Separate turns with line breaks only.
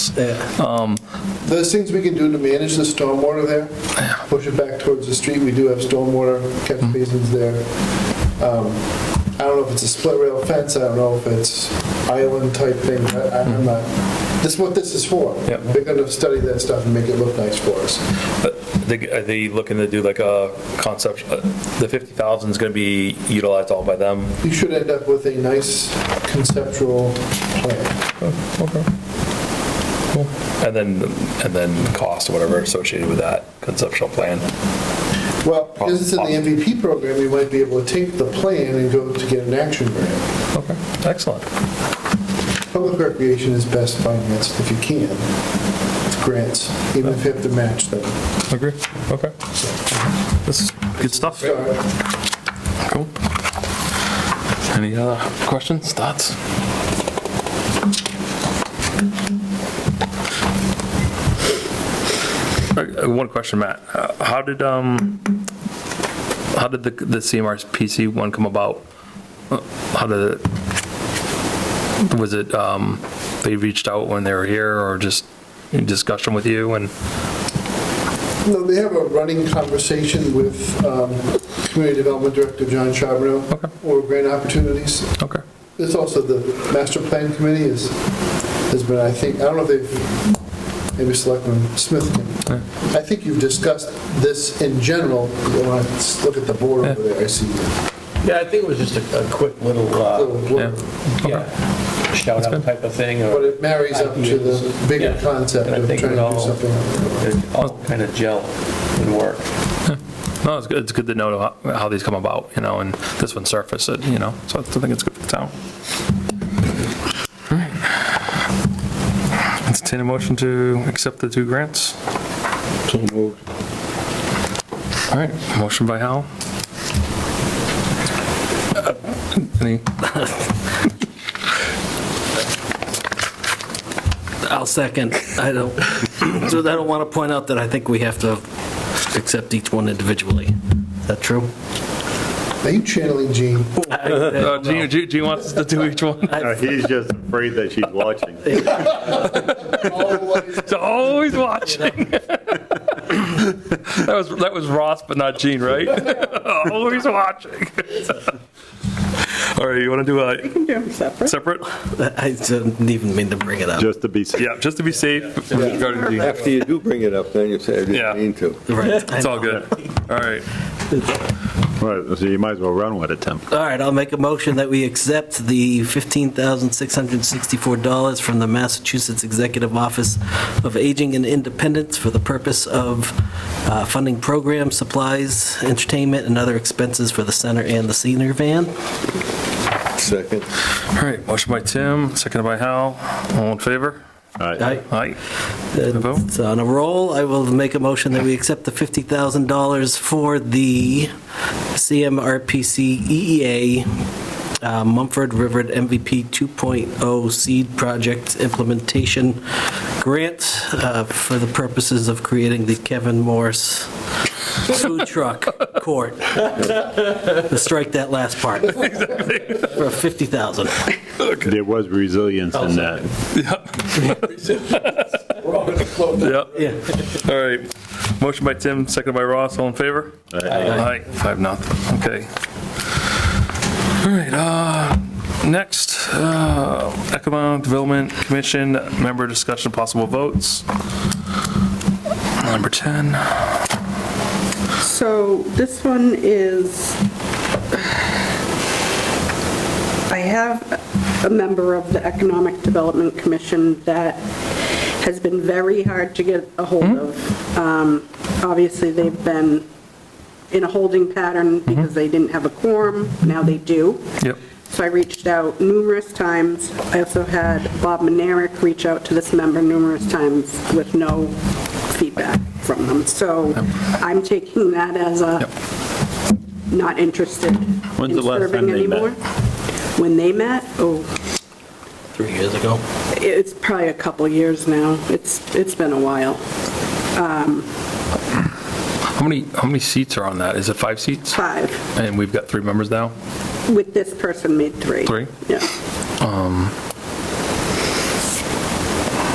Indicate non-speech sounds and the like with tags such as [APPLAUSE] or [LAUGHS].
Yes.
Um,
There's things we can do to manage the stormwater there, push it back towards the street. We do have stormwater catch basins there. Um, I don't know if it's a split rail fence, I don't know if it's island type thing, I- I'm not, this is what this is for.
Yep.
They're gonna study that stuff and make it look nice for us.
but they- Are they looking to do like a concept, uh, the 50,000 is going to be utilized all by them?
You should end up with a nice conceptual plan.
And then, and then cost or whatever associated with that conceptual plan?
Well, because it's in the MVP program, you might be able to take the plan and go to get an action grant.
Okay, excellent.
Public recreation is best financed if you can, with grants, even if you have to match them.
Agree, okay. This is good stuff.
Start.
Cool. Any other questions, thoughts? Uh, One question, Matt. Uh, How did, um, how did the, the CMRPC one come about? Uh, How did, it- was it, um, they reached out when they were here or just in discussion with you and,
No, they have a running conversation with um, Community Development Director John Charbonneau over grant opportunities.
okay,
It's also the master plan committee is, has been, I think, I don't know if they've, maybe Selectman Smith can. I think you've discussed this in general, when I s- look at the board over there, I see the
Yeah, I think it was just a, a quick little, uh,
little blur.
yeah, shout out type of thing,
But
or
it marries up to the bigger
Yeah.
concept
And I
of trying to
think it
do
all-
something.
it all kind of gel and work.
No, it's good, it's good to know how- how these come about, you know, and this one surfaced it, you know, so I think it's good for the town. Entertain a motion to accept the two grants. All right, motion by Hal. Uh, Any,
I'll second. I don't, so I don't want to point out that I think we have to accept each one individually. Is that true?
Are you channeling Gene?
Uh, Gene, Gene Gene wants us to do each one?
No, Uh, He's just afraid that she's watching.
He's Always watching. That was, that was Ross, but not Gene, right? [LAUGHS] Always watching. All right, you want to do a
can do them separate.
separate?
I didn't even mean to bring it up.
Just to be safe.
Yeah, just to be safe regarding the,
After you do bring it up, then you say, I
Yeah.
didn't mean to.
Right.
[LAUGHS] it's all good. All right.
Right, So you might as well run with it, Tim.
All right, I'll make a motion that we accept the $15,664 from the Massachusetts Executive Office of Aging and Independence for the purpose of uh, funding programs, supplies, entertainment, and other expenses for the center and the senior van.
Second.
All right, motion by Tim, seconded by Hal. All in favor?
All right.
Aye.
Aye. vote?
It's on a roll. I will make a motion that we accept the $50,000 for the CMRPC EEA E uh, Mumford River MVP 2.0 Seed Project Implementation Grant uh, for the purposes of creating the Kevin Morse Food Truck Court. Let's Strike that last part. For 50000
There was resilience in that.
Yep.
Yeah.
All right. Motion by Tim, seconded by Ross. All in favor?
Uh,
Aye. Five, nothing. Okay. All right, uh, next, uh, Economic Development Commission, member discussion, possible votes. Number 10.
So this one is, I have a member of the Economic Development Commission that has been very hard to get a hold of. Um, Obviously, they've been in a holding pattern because they didn't have a quorum. Now they do.
Yep.
So I reached out numerous times. I also had Bob Manerick reach out to this member numerous times with no feedback from them. So I'm taking that as a not interested
When's the
in
last
serving
time they met?
anymore. When they met? Oh,
Three years ago.
it's probably a couple years now. It's, it's been a while. Um,
How many, how many seats are on that? Is it five seats?
Five.
And we've got three members now?
With this person made three.
Three?
Yeah.